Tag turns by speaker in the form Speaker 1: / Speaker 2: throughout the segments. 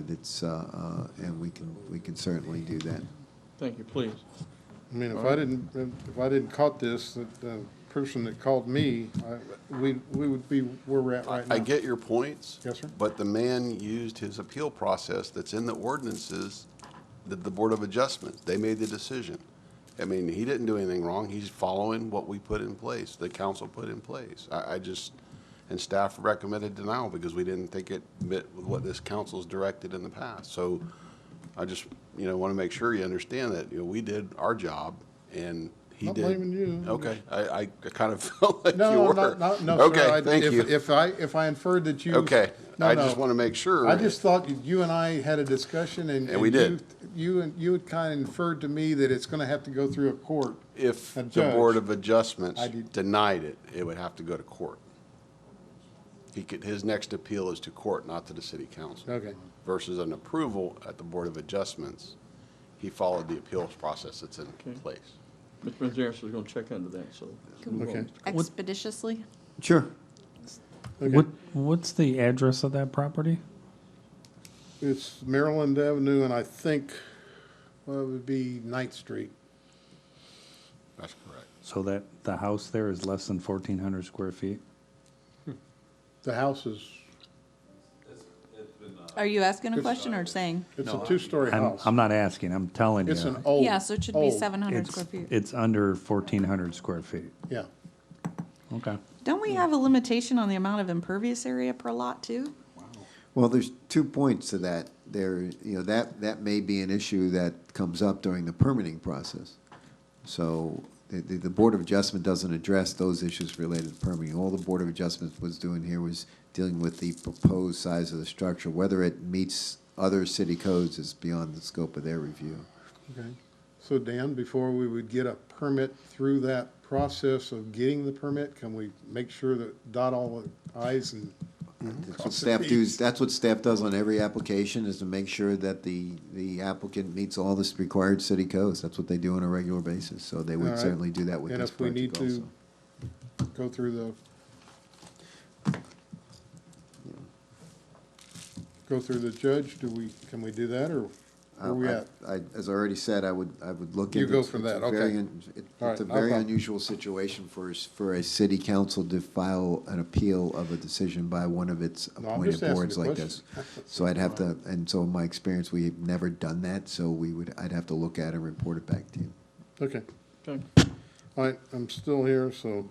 Speaker 1: But It's, uh, uh, and we can, we can certainly do that.
Speaker 2: Thank you, please.
Speaker 3: I mean, if I didn't, if I didn't caught this, the- the person that called me, I- we, we would be where we're at right now.
Speaker 4: I get your points.
Speaker 3: Yes, sir.
Speaker 4: But the man used his appeal process that's in the ordinances, that the Board of Adjustment, they made the decision. I mean, he didn't do anything wrong. He's following what we put in place, the council put in place. I, I just, and staff recommended denial because we didn't think it met with what this council's directed in the past. So I just, you know, want to make sure you understand that, you know, we did our job and he
Speaker 3: Not
Speaker 4: did.
Speaker 3: blaming you.
Speaker 4: Okay, I, I kind of felt like you
Speaker 3: No,
Speaker 4: were.
Speaker 3: not, not, no, sir. I-
Speaker 4: Okay, thank
Speaker 3: if-
Speaker 4: you.
Speaker 3: If I, if I inferred that you.
Speaker 4: Okay,
Speaker 3: No,
Speaker 4: I just
Speaker 3: no.
Speaker 4: want to make sure.
Speaker 3: I just thought you- you and I had a discussion and.
Speaker 4: And we
Speaker 3: you-
Speaker 4: did.
Speaker 3: You, and you had kind of inferred to me that it's going to have to go through a court.
Speaker 4: If
Speaker 3: a
Speaker 4: the
Speaker 3: judge.
Speaker 4: Board of Adjustments
Speaker 3: I did-
Speaker 4: denied it, it would have to go to court. He could, his next appeal is to court, not to the city council.
Speaker 3: Okay.
Speaker 4: Versus an approval at the Board of Adjustments, he followed the appeals process that's in
Speaker 2: Okay.
Speaker 4: place.
Speaker 2: Mr. Manzares is going to check into that, so. let's move on.
Speaker 3: Okay.
Speaker 5: expeditiously.
Speaker 1: Sure.
Speaker 3: Okay.
Speaker 6: What what's the address of that property?
Speaker 3: It's Maryland Avenue and I think, well, it would be Ninth Street.
Speaker 4: That's correct.
Speaker 7: So that, the house there is less than fourteen hundred square feet?
Speaker 3: The house is,
Speaker 5: Are you asking a question or saying?
Speaker 3: it's a two-story
Speaker 7: I'm,
Speaker 3: house.
Speaker 7: I'm not asking, I'm telling you.
Speaker 3: It's an old.
Speaker 5: Yeah, so it should be
Speaker 3: old-
Speaker 5: seven hundred
Speaker 7: It's-
Speaker 5: square feet.
Speaker 7: It's under fourteen hundred square feet.
Speaker 3: Yeah.
Speaker 7: Okay.
Speaker 5: Don't we have a limitation on the amount of impervious area per lot too?
Speaker 1: Well, there's two points to that. There, you know, that, that may be an issue that comes up during the permitting process. So the, the, the Board of Adjustment doesn't address those issues related to permitting. All the Board of Adjustment was doing here was dealing with the proposed size of the structure. Whether it meets other city codes is beyond the scope of their review.
Speaker 3: Okay, so Dan, before we would get a permit through that process of getting the permit, can we make sure that dot all the i's and?
Speaker 1: That's what staff does, that's what staff does on every application, is to make sure that the, the applicant meets all the required city codes. That's what they do on a regular basis, so they
Speaker 3: All
Speaker 1: would
Speaker 3: right.
Speaker 1: certainly do that with
Speaker 3: And
Speaker 1: this
Speaker 3: if we need
Speaker 1: project
Speaker 3: to
Speaker 1: also.
Speaker 3: go through the. Go through the judge, do we, can we do that, or where we
Speaker 1: I-
Speaker 3: at?
Speaker 1: I, as I already said, I would, I would look
Speaker 3: You
Speaker 1: into.
Speaker 3: go
Speaker 1: it's-
Speaker 3: for
Speaker 1: it's
Speaker 3: that,
Speaker 1: a very
Speaker 3: okay.
Speaker 1: un- it-
Speaker 3: All
Speaker 1: It's a
Speaker 3: right, no
Speaker 1: very
Speaker 3: problem.
Speaker 1: unusual situation for, s- for a city council to file an appeal of a decision by one of its
Speaker 3: No, I'm
Speaker 1: appointed
Speaker 3: just asking
Speaker 1: boards
Speaker 3: a
Speaker 1: like this.
Speaker 3: question.
Speaker 1: So I'd have to, and so in my experience, we've never done that, so we would, I'd have to look at it and report it back to you.
Speaker 3: Okay.
Speaker 2: Okay.
Speaker 3: All right, I'm still here, so,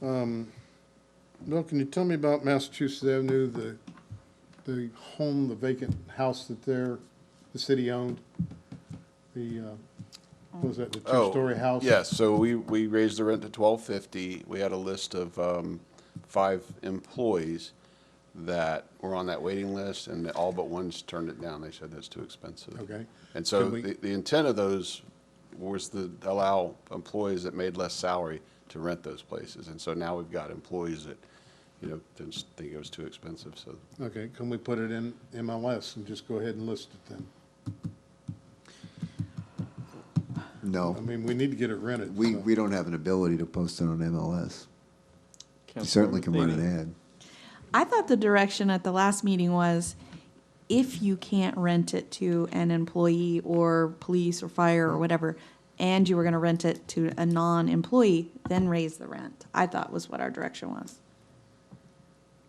Speaker 3: um, Bill, can you tell me about Massachusetts Avenue, the, the home, the vacant house that there, the city owned? The, uh, what was that, the
Speaker 4: Oh,
Speaker 3: two-story house?
Speaker 4: Yes, so we, we raised the rent to twelve fifty. We had a list of, um, five employees that were on that waiting list and all but one's turned it down. They said that's too expensive.
Speaker 3: Okay.
Speaker 4: And so
Speaker 3: Can we-
Speaker 4: the, the intent of those was to allow employees that made less salary to rent those places. And so now we've got employees that, you know, didn't s- think it was too expensive, so.
Speaker 3: Okay, can we put it in MLS and just go ahead and list it then?
Speaker 1: No.
Speaker 3: I mean, we need to get it rented.
Speaker 1: We,
Speaker 3: so.
Speaker 1: we don't have an ability to post it on MLS. You
Speaker 2: Councilmember
Speaker 1: certainly can run eh?
Speaker 2: Thiede.
Speaker 1: an ad.
Speaker 5: I thought the direction at the last meeting was if you can't rent it to an employee or police or fire or whatever, and you were gonna rent it to a non-employee, then raise the rent. I thought was what our direction was.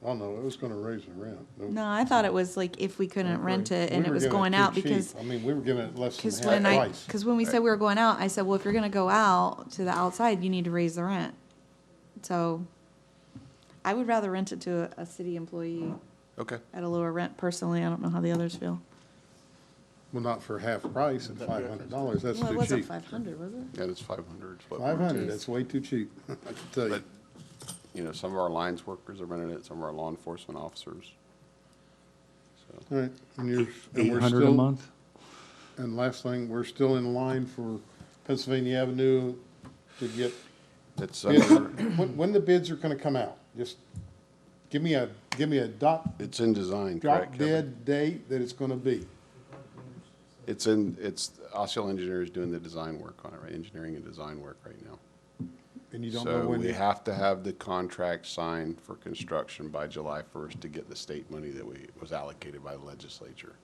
Speaker 3: I don't know, it was gonna raise the rent.
Speaker 5: No, I thought it was like if we couldn't rent it and
Speaker 3: We
Speaker 5: it
Speaker 3: were
Speaker 5: was
Speaker 3: giving
Speaker 5: going
Speaker 3: too
Speaker 5: out
Speaker 3: cheap.
Speaker 5: because
Speaker 3: I mean, we were giving it less
Speaker 5: Because
Speaker 3: than
Speaker 5: when
Speaker 3: half
Speaker 5: I,
Speaker 3: price.
Speaker 5: because when we said we were going out, I said, well, if you're gonna go out to the outside, you need to raise the rent. So I would rather rent it to a, a city employee
Speaker 4: Okay.
Speaker 5: at a lower rent personally. I don't know how the others feel.
Speaker 3: Well, not for half price at five hundred dollars, that's
Speaker 5: Well, it
Speaker 3: too cheap.
Speaker 5: wasn't five hundred, was it?
Speaker 4: And it's five hundred.
Speaker 3: Five hundred, that's way too cheap, I can tell you.
Speaker 4: But, you know, some of our lines workers are renting it, some of our law enforcement officers. So,
Speaker 3: All right, and you're, and
Speaker 7: Eight
Speaker 3: we're
Speaker 7: hundred a
Speaker 3: still,
Speaker 7: month?
Speaker 3: and last thing, we're still in line for Pennsylvania Avenue to get,
Speaker 4: It's,
Speaker 3: bids.
Speaker 4: uh,
Speaker 3: when, when the bids are gonna come out, just give me a, give me a dot,
Speaker 4: it's in design, correct,
Speaker 3: drop
Speaker 4: Kevin?
Speaker 3: dead date that it's gonna be.
Speaker 4: It's in, it's, Osceola Engineers doing the design work on it, right? Engineering and design work right now.
Speaker 3: And you don't know
Speaker 4: So
Speaker 3: when,
Speaker 4: we
Speaker 3: you-
Speaker 4: have to have the contract signed for construction by July first to get the state money that we, was allocated by the legislature.